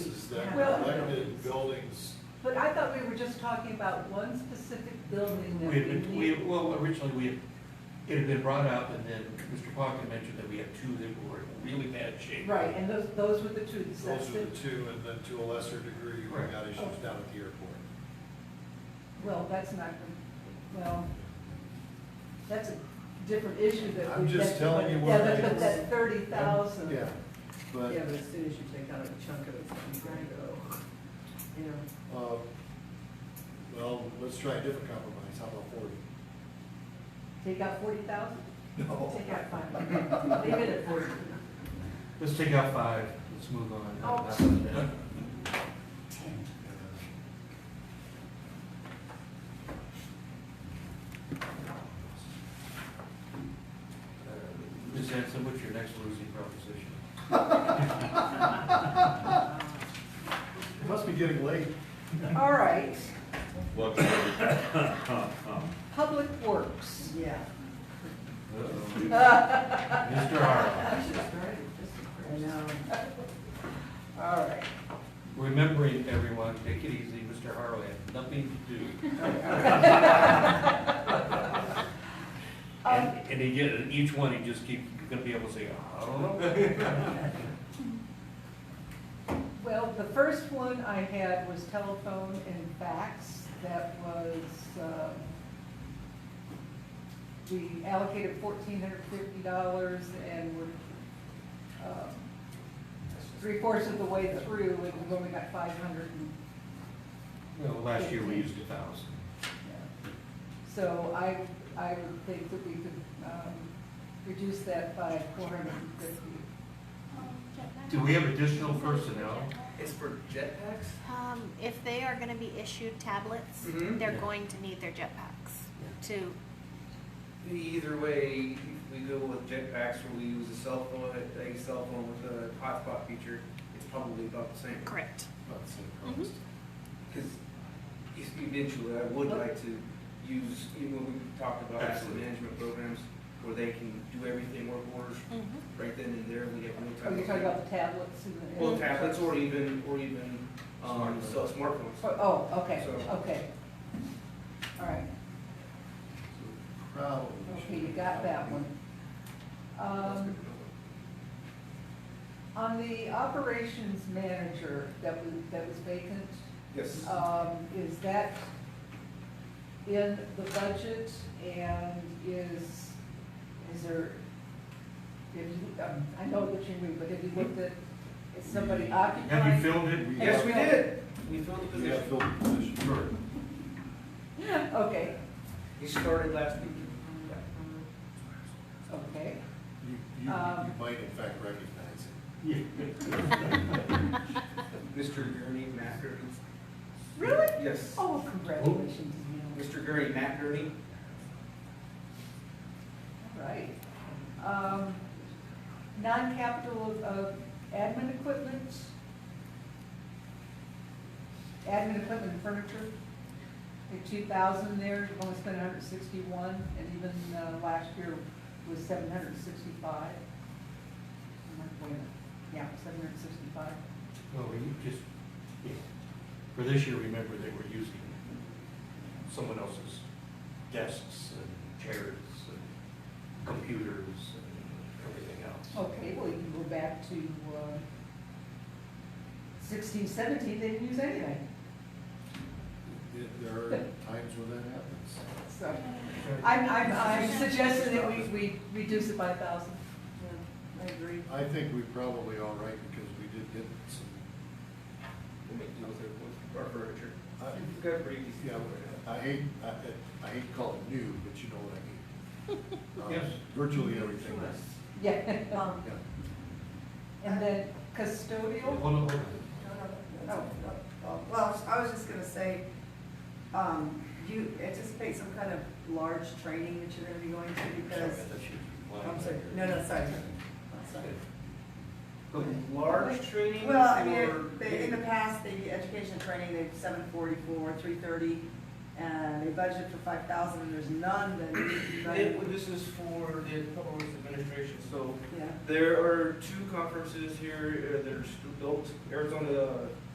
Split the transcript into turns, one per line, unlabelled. buildings.
But I thought we were just talking about one specific building that we
We had been, we,
need.
well, originally, we, had- it had been brought up, and then Mr. Pocken mentioned that we had two that were in really bad shape.
Right, and those, those were the two, the
Those are the
Sexton,
two, and then to a lesser degree, we
Right.
got issues down at the airport.
well, that's not, well, that's a different issue that we.
I'm just
that-
telling you
Yeah,
what
but-
it
but
is.
that thirty thousand.
Yeah, but,
Yeah, but as soon as you take out a chunk of it, it's gonna go, you know.
uh, well, let's try a different compromise, how about forty?
Take out forty thousand?
No.
Take out five. Leave it at forty.
Let's take out five, let's move on.
Oh.
Ms. Uh, Hanson, what's your next losing proposition?
It must be getting late.
All right,
What, what
Public Works.
Yeah.
Uh-oh. Mr. Harlow,
I should have started just I know.
All right.
remembering everyone, take it easy, Mr. Harlow had nothing to do.
Um,
And, and he get, each one, he just keep, you're gonna be able to say, I don't know.
Well, the first one I had was telephone and fax. That was, um, we allocated fourteen hundred fifty dollars and we're um, three fourths of the way through and we've only got five hundred and
Well, last year we used a thousand.
So I, I would think that we could, um, reduce that by four hundred and fifty.
Do we have additional personnel?
It's for jetpacks?
Um, if they are gonna be issued tablets,
Mm-hmm.
Mhm.
they're
Yeah.
going to need their jetpacks to,
Either way, we go with jetpacks or we use a cell phone, a cell phone with a hotspot feature, it's probably about the same.
correct.
About the same
Mm-hmm.
cost.
Because eventually, I would like to use, even when we talked about asset
Absolutely.
management programs, where they can do everything work orders right then and there, we have no
Are
time.
you
to
Oh, talking about the tablets and the?
Well, tablets or even, or even, um,
Smartphones.
so smartphones.
Oh, okay,
So-
okay. All right,
So Probably.
okay, you got that one. Um, on the operations manager that was, that was vacant,
Yes.
um, is that in the budget and is, is there, if you, um, I know what you mean, but have you looked at, is somebody occupying?
Have you filled it?
Yes, we did. We filled the
We have
position.
filled the position.
Sure.
Okay,
He started last week.
okay.
You, you, you
Um,
might in fact recognize it.
Mr. Gurney, Matt Gurney.
Really?
Yes.
Oh, congratulations, Neil.
Mr. Gurney, Matt Gurney.
Right. Um, non-capital, uh, admin equipment? Admin equipment and furniture? The two thousand there, you've only spent hundred sixty-one, and even, uh, last year was seven hundred sixty-five. Yeah, seven hundred sixty-five.
Well, we just, yeah. for this year, remember, they were using someone else's desks and chairs and computers and everything else.
Okay, well, you can go back to, uh, sixteen, seventeen, they didn't use anything,
It- There are times when that happens.
so. I'm, I'm, I'm suggesting that we, we reduce it by a thousand. I agree.
I think we probably all right because we did get some,
We'll make deals there with our furniture.
I-
We've got pretty decent.
Yeah,
furniture.
I hate, I, I hate to call it new, but you know what I mean. Um,
Yes.
Virtually everything. is-
Yeah,
Um,
yeah.
and then
Hold on,
custodial,
hold on.
no, no, no. oh, Well, I was just gonna say, um, do you anticipate some kind of large training that you're gonna be going to because,
Sorry, I thought you were lying
I'm sorry,
there.
no, no, sorry. Sorry.
Go ahead.
Large training
Well, I
or-
mean, they, in the past, the education training, they've seven forty-four, three thirty, and they budgeted for five thousand, and there's none that.
It- well, this is for the public works administration, so
Yeah.
there are two conferences here, uh, there's adult Arizona